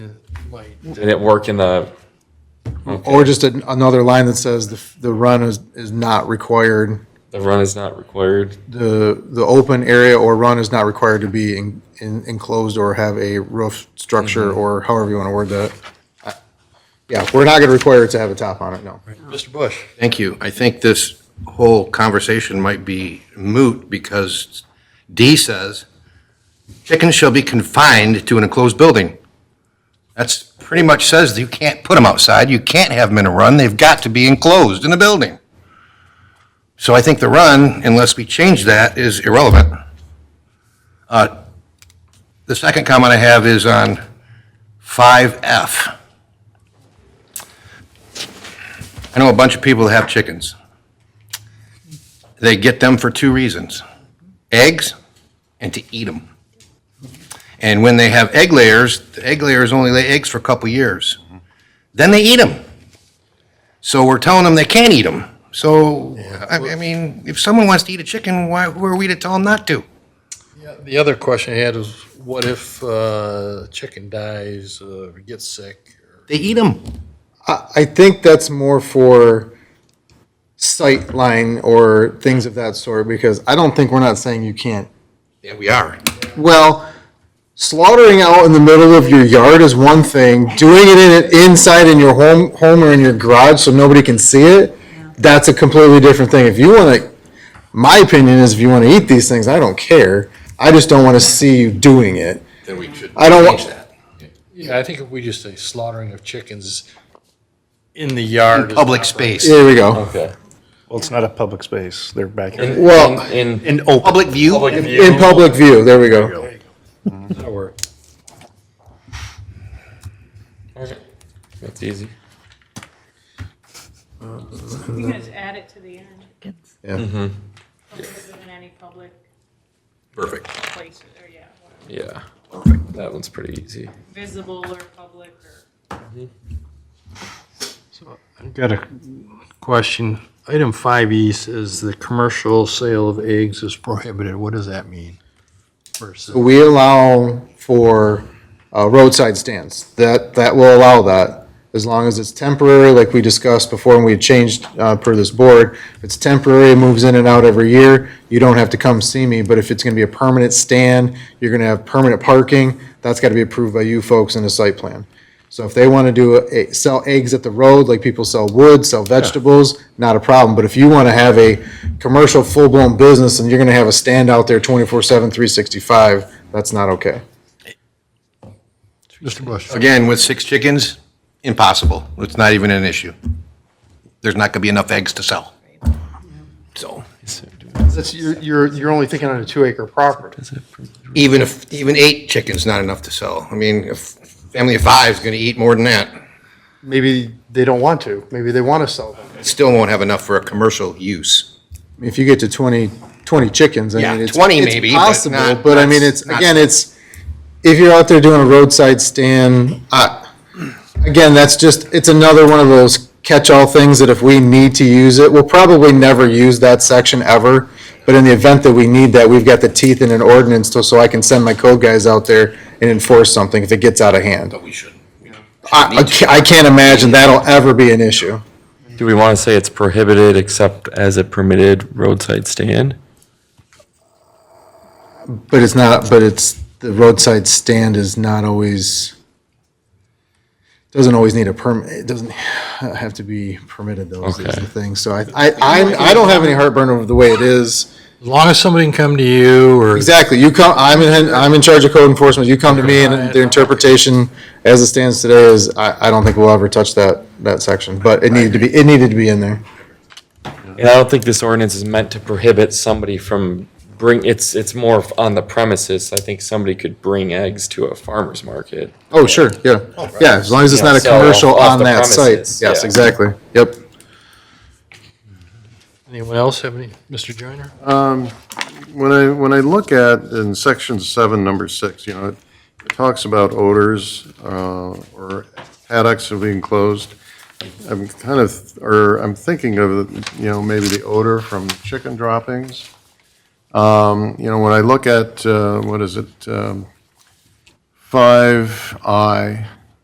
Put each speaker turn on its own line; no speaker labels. light.
Did it work in the,
Or just an- another line that says the, f- the run is, is not required,
the run is not required?
the, the open area or run is not required to be en- en- enclosed or have a roof structure or however you want to word that. I- Yeah, we're not going to require it to have a top on it, no.
Mr. Bush.
Thank you. I think this whole conversation might be moot because D says chickens shall be confined to an enclosed building. That's pretty much says that you can't put them outside, you can't have them in a run, they've got to be enclosed in a building. So I think the run, unless we change that, is irrelevant. Uh, The second comment I have is on 5F. I know a bunch of people that have chickens. They get them for two reasons, eggs and to eat them. And when they have egg layers, the egg layers only lay eggs for a couple years. Then they eat them. So we're telling them they can't eat them. So, I I mean, if someone wants to eat a chicken, why, who are we to tell them not to?
Yeah, the other question I had is, what if uh, chicken dies, uh, gets sick?
They eat them.
I, I think that's more for sight line or things of that sort, because I don't think we're not saying you can't
Yeah, we are.
Well, slaughtering out in the middle of your yard is one thing. Doing it in, inside in your home, home or in your garage so nobody can see it, that's a completely different thing. If you want to, my opinion is if you want to eat these things, I don't care. I just don't want to see you doing it.
Then we should
I don't wa-
change that.
Yeah, I think if we just say slaughtering of chickens in the yard. is
Public
not
space,
Here we go.
Okay.
Well, it's not a public space. They're back here.
In-
Well-
In, in
And open.
public view.
public view.
In public view, there we go.
right. That'll work.
That's easy.
You can just add it to the end,
Yeah.
other than any public
Perfect.
places, or yeah, whatever,
Yeah. That one's pretty easy.
visible or public or.
I've got a question. Item five E says the commercial sale of eggs is prohibited. What does that mean? Versus.
We allow for uh, roadside stands. That, that will allow that, as long as it's temporary, like we discussed before and we had changed uh, per this board. If it's temporary, it moves in and out every year, you don't have to come see me. But if it's going to be a permanent stand, you're going to have permanent parking, that's got to be approved by you folks in a site plan. So if they want to do, a- sell eggs at the road, like people sell wood, sell vegetables, not a problem. But if you want to have a commercial full-blown business and you're going to have a stand out there 24/7, 365, that's not okay.
Mr. Bush.
Again, with six chickens, impossible. It's not even an issue. There's not going to be enough eggs to sell. So,
That's, you're, you're, you're only thinking on a two acre property.
even if, even eight chickens, not enough to sell. I mean, a f- family of five is going to eat more than that.
Maybe they don't want to. Maybe they want to sell them.
Still won't have enough for a commercial use.
If you get to 20, 20 chickens, I
Yeah,
mean, it's.
20
it's
maybe, but
possible,
not-
But I
not-
mean, it's,
not-
again, it's, if you're out there doing a roadside stand, I, again, that's just, it's another one of those catch-all things that if we need to use it, we'll probably never use that section ever. But in the event that we need that, we've got the teeth in an ordinance to, so I can send my code guys out there and enforce something if it gets out of hand.
But we shouldn't.
I, I ca- I can't imagine that'll ever be an issue.
Do we want to say it's prohibited except as a permitted roadside stand?
But it's not, but it's, the roadside stand is not always, doesn't always need a permit, it doesn't have to be permitted though, is
Okay.
the thing. So I, I, I I don't have any heartburn over the way it is.
As long as somebody can come to you or.
Exactly, you come, I'm in, I'm in charge of code enforcement, you come to me and their interpretation as it stands today is, I, I don't think we'll ever touch that, that section, but it needed to be, it needed to be in there.
And I don't think this ordinance is meant to prohibit somebody from bring, it's, it's more on the premises. I think somebody could bring eggs to a farmer's market.
Oh, sure, yeah, yeah, as long as it's not a
Yeah, so
commercial
off
on
the
that site.
premises,
Yes,
yeah.
exactly, yep.
Anyone else have any, Mr. Joyner?
When I, when I look at in section seven, number six, you know, it talks about odors uh, or paddocks have been closed. I'm kind of, or I'm thinking of, you know, maybe the odor from chicken droppings. Um, You know, when I look at, uh, what is it? um, Five I,